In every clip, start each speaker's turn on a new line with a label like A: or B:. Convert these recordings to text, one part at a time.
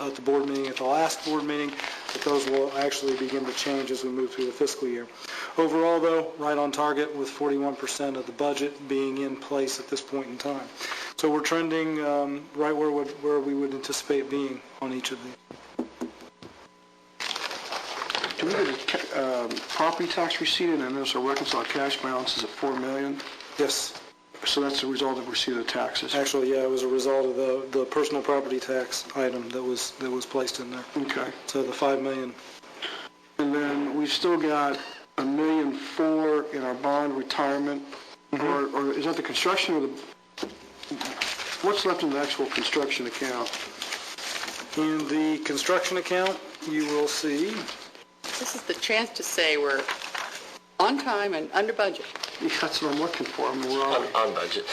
A: uh, at the board meeting, at the last board meeting, but those will actually begin to change as we move through the fiscal year. Overall, though, right on target with 41% of the budget being in place at this point in time. So we're trending um, right where, would- where we would anticipate being on each of these.
B: Do we get a ca- um, property tax receipt and then there's a reconciled cash balance is at 4 million?
A: Yes,
B: So that's the result of receipt of taxes.
A: actually, yeah, it was a result of the, the personal property tax item that was, that was placed in there.
B: Okay.
A: So the 5 million,
B: And then we've still got a million four in our bond retirement, or or is that the construction or the, what's left in the actual construction account?
A: in the construction account, you will see,
C: This is the chance to say we're on time and under budget.
B: Yeah, That's what I'm looking for, I mean, we're
D: On,
B: all,
D: on budget.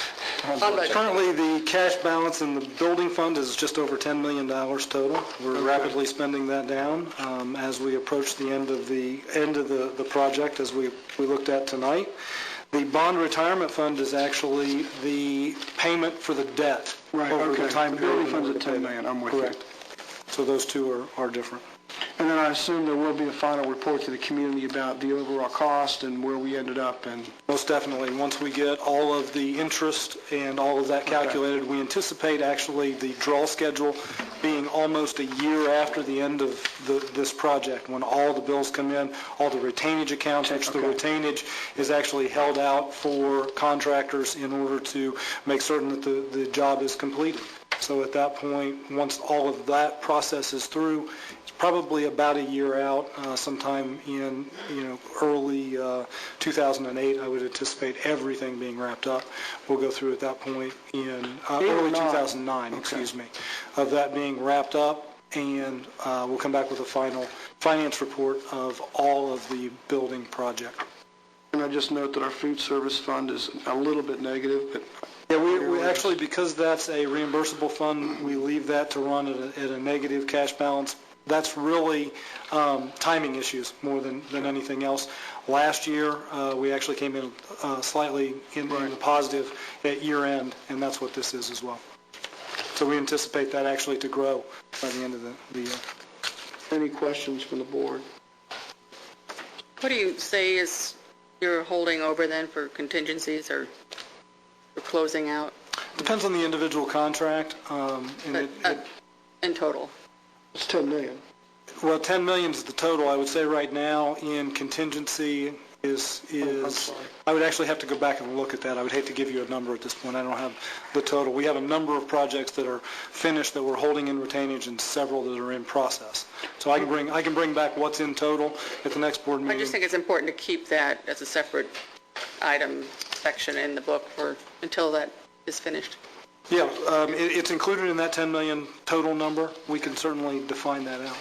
C: On budget.
A: Currently, the cash balance in the building fund is just over $10 million total. We're rapidly spending that down um, as we approach the end of the, end of the, the project, as we, we looked at tonight. The bond retirement fund is actually the payment for the debt.
B: right,
A: over the
B: okay.
A: time
B: The building
A: period
B: fund's
A: in order to
B: at
A: pay
B: 10
A: that.
B: million, I'm with you.
A: Correct. So those two are, are different.
B: And then I assume there will be a final report to the community about the overall cost and where we ended up and,
A: Most definitely. Once we get all of the interest and all of that calculated, we anticipate actually the draw schedule being almost a year after the end of the- this project, when all the bills come in, all the retainage accounts, which the
B: Okay.
A: retainage is actually held out for contractors in order to make certain that the, the job is completed. So at that point, once all of that process is through, it's probably about a year out, uh, sometime in, you know, early uh, 2008, I would anticipate everything being wrapped up. We'll go through at that point in, uh,
B: Eight or
A: early
B: nine?
A: 2009, excuse me, of that being wrapped up, and uh, we'll come back with a final finance report of all of the building project.
B: and I just note that our food service fund is a little bit negative, but
A: Yeah, we, we actually, because that's a reimbursable fund, we leave that to run at a, at a negative cash balance. That's really, um, timing issues more than, than anything else. Last year, uh, we actually came in uh, slightly in in the positive at year end, and that's what this is as well. So we anticipate that actually to grow by the end of the, the year.
B: any questions from the board?
C: What do you say is you're holding over then for contingencies or for closing out
A: Depends on the individual contract, um, and it,
C: Uh,
A: it-
C: in total?
B: It's 10 million.
A: Well, 10 million is the total, I would say right now, in contingency is, is,
B: sorry.
A: I would actually have to go back and look at that. I would hate to give you a number at this point, I don't have the total. We have a number of projects that are finished that we're holding in retainage and several that are in process. So I can bring, I can bring back what's in total at the next board
C: I
A: meeting.
C: just think it's important to keep that as a separate item section in the book for, until that is finished.
A: Yeah, um, it, it's included in that 10 million total number, we can certainly define that out.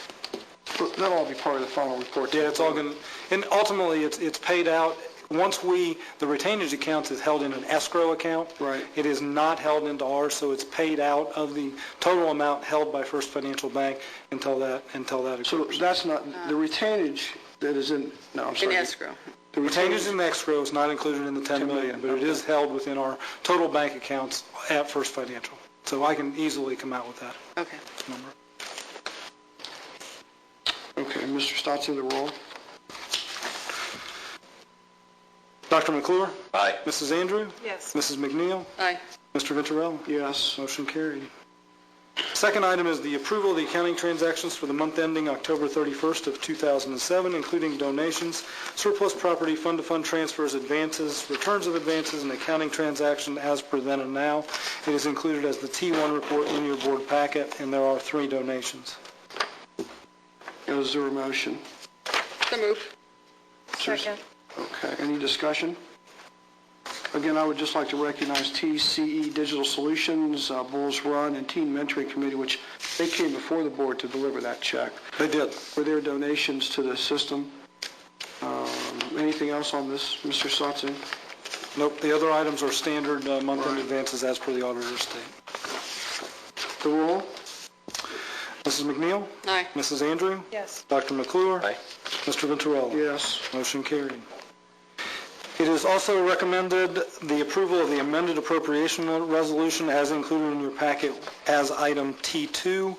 B: But That'll all be part of the final report.
A: Yeah, it's all going, to and ultimately, it's, it's paid out, once we, the retainage accounts is held in an escrow account.
B: Right.
A: It is not held into ours, so it's paid out of the total amount held by First Financial Bank until that, until that
B: So
A: occurs.
B: that's not, the retainage that is in, no, I'm
C: Uh, In
B: sorry.
C: escrow.
B: The
A: Retainage in escrow is not included in the 10 million, but it is held within our total bank accounts at First Financial. So I can easily come out with that
C: Okay.
A: number.
B: Okay, Mr. Stotson, the roll.
A: Dr. McClure?
D: Aye.
A: Mrs. Andrew?
C: Yes.
A: Mrs. McNeil?
C: Aye.
A: Mr. Venturello?
B: Yes.
A: Motion carried. Second item is the approval of the accounting transactions for the month ending October 31st of 2007, including donations, surplus property, fund-to-fund transfers, advances, returns of advances, and accounting transaction as per then and now. It is included as the T1 report in your board packet, and there are three donations.
B: Is there a motion?
C: So move.
B: Second. Okay, any discussion? Again, I would just like to recognize TCE Digital Solutions, uh, Bulls Run, and Teen Mentoring Committee, which they came before the board to deliver that check
A: They did.
B: for their donations to the system. Um, Anything else on this, Mr. Stotson?
A: Nope, the other items are standard uh, month-end
B: Right.
A: advances as per the auditor's statement.
B: The roll?
A: Mrs. McNeil?
C: Aye.
A: Mrs. Andrew?
E: Yes.
A: Dr. McClure?
D: Aye.
A: Mr. Venturello?
B: Yes.
A: Motion carried. It is also recommended the approval of the amended appropriation resolution as included in your packet as item T2